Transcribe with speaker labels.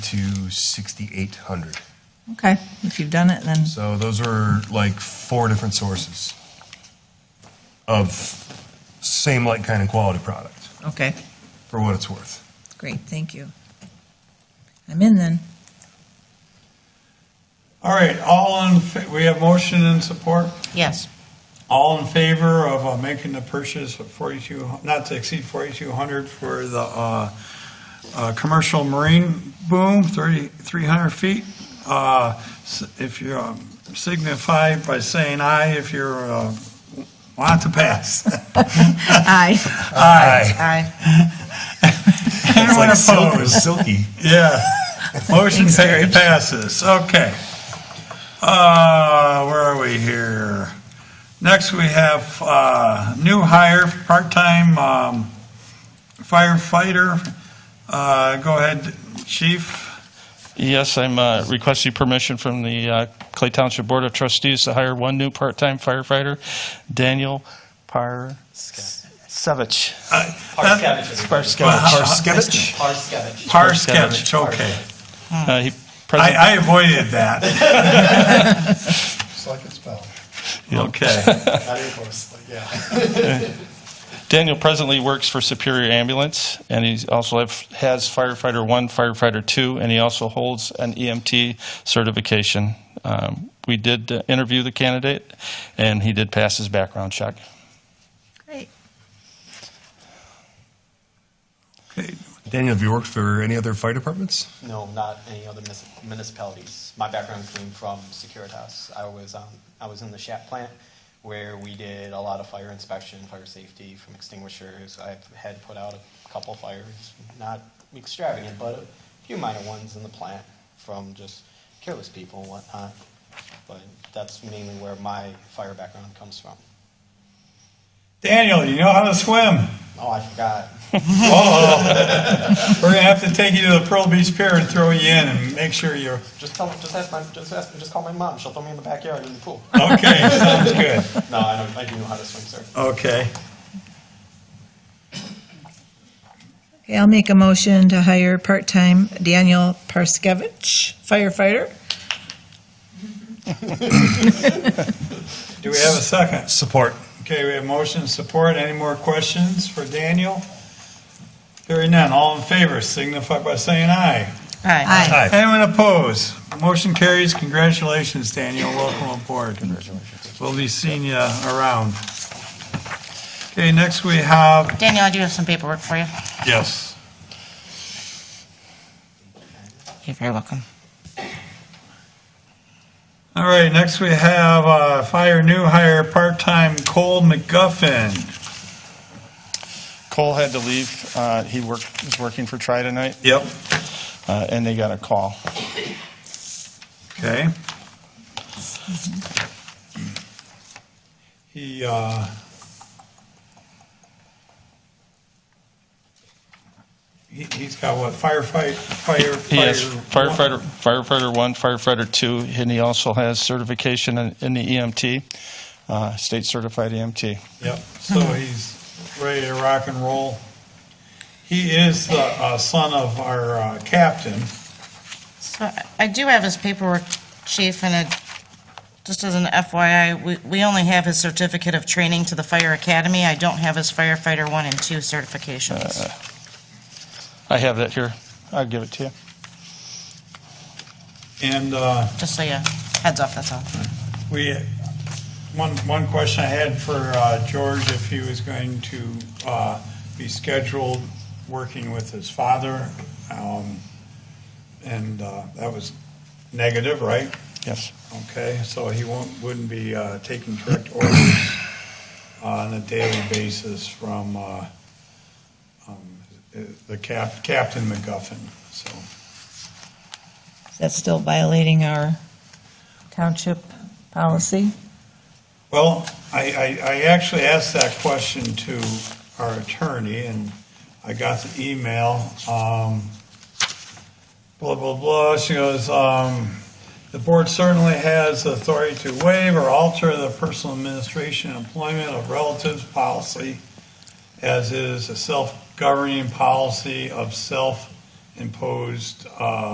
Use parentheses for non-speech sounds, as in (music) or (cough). Speaker 1: to 6,800.
Speaker 2: Okay, if you've done it, then,
Speaker 1: So those are like four different sources of same like kind of quality product
Speaker 2: okay,
Speaker 1: for what it's worth.
Speaker 2: great, thank you. I'm in then.
Speaker 3: All right, all in, fa- we have motion and support.
Speaker 4: Yes.
Speaker 3: All in favor of uh, making the purchase of 42, not to exceed 4,200 for the uh, uh, commercial marine boom, 30 300 feet? Uh, s- If you um, signify by saying aye if you're, uh, want to pass. (laughs)
Speaker 2: Aye.
Speaker 1: Aye.
Speaker 2: Aye.
Speaker 1: It's
Speaker 3: Anyone
Speaker 1: like silk,
Speaker 3: opposed?
Speaker 1: silky.
Speaker 3: Yeah. Motion pa- passes. Okay. Uh, where are we here? Next, we have, uh, new hire, part-time, um, firefighter. Uh, go ahead, chief.
Speaker 5: Yes, I'm uh, requesting permission from the uh, Clay Township Board of Trustees to hire one new part-time firefighter, Daniel Parsevich.
Speaker 3: Uh,
Speaker 6: Parskevich.
Speaker 3: Parscevich.
Speaker 1: Skevich?
Speaker 6: Parskevich.
Speaker 3: uh, Parskevich, okay.
Speaker 5: Uh, he
Speaker 3: I,
Speaker 5: present-
Speaker 3: I avoided that.
Speaker 7: (laughs)
Speaker 3: (laughs)
Speaker 7: Just like it's spelled.
Speaker 3: Okay.
Speaker 7: Not even close, like, yeah.
Speaker 5: Daniel presently works for Superior Ambulance, and he also have, has firefighter one, firefighter two, and he also holds an EMT certification. Um, we did uh, interview the candidate, and he did pass his background check.
Speaker 2: Great.
Speaker 1: Daniel, have you worked for any other fire departments?
Speaker 6: No, not any other mis- municipalities. My background came from Securitas. I was um, I was in the Shat plant where we did a lot of fire inspection, fire safety from extinguishers. I've had put out a couple fires, not extravagant, but a few minor ones in the plant from just careless people and whatnot. But that's mainly where my fire background comes from.
Speaker 3: Daniel, you know how to swim?
Speaker 6: Oh, I forgot.
Speaker 3: We're gonna have to take you to the Pearl Beach Pier and throw you in and make sure you're,
Speaker 6: Just tell, just ask my, just ask, just call my mom. She'll throw me in the backyard in the pool.
Speaker 3: okay, (laughs) sounds good.
Speaker 6: No, I don't, I do know how to swim, sir.
Speaker 3: Okay.
Speaker 2: Okay, I'll make a motion to hire part-time Daniel Parskevich, firefighter.
Speaker 3: Do we have a second?
Speaker 1: Support.
Speaker 3: Okay, we have motion and support. Any more questions for Daniel? Hearing none, all in favor signify by saying aye.
Speaker 4: Aye.
Speaker 1: Aye.
Speaker 3: Anyone opposed? Motion carries. Congratulations, Daniel. Welcome aboard. We'll be seeing you around. Okay, next we have,
Speaker 4: Daniel, I do have some paperwork for you.
Speaker 3: yes.
Speaker 4: You're very welcome.
Speaker 3: All right, next we have uh, fire new hire, part-time Cole McGuffin.
Speaker 5: Cole had to leave. Uh, he worked, was working for Tri tonight,
Speaker 3: Yep.
Speaker 5: uh, and they got a call.
Speaker 3: Okay. He, uh, he, he's got what firefight, fire,
Speaker 5: He
Speaker 3: fire.
Speaker 5: has firefighter, firefighter one, firefighter two, and he also has certification in in the EMT, uh, state certified EMT.
Speaker 3: Yep, so
Speaker 5: Mm-hmm.
Speaker 3: he's ready to rock and roll. He is the uh, son of our uh, captain.
Speaker 4: So I- I do have his paperwork, chief, and it, just as an FYI, we, we only have his certificate of training to the fire academy. I don't have his firefighter one and two certifications.
Speaker 5: I have that here. I'll give it to you.
Speaker 3: And, uh,
Speaker 4: Just so you, heads up, that's all.
Speaker 3: We, one, one question I had for uh, George, if he was going to uh, be scheduled working with his father, um, and uh, that was negative, right?
Speaker 5: Yes.
Speaker 3: Okay, so he won't, wouldn't be uh, taking direct orders on a daily basis from uh, um, the cap, Captain McGuffin, so.
Speaker 2: Is that still violating our township policy?
Speaker 3: Well, I, I, I actually asked that question to our attorney, and I got the email, um, blah, blah, blah, she goes, um, the board certainly has authority to waive or alter the personal administration and employment of relatives policy, as is a self-governing policy of self-imposed, uh,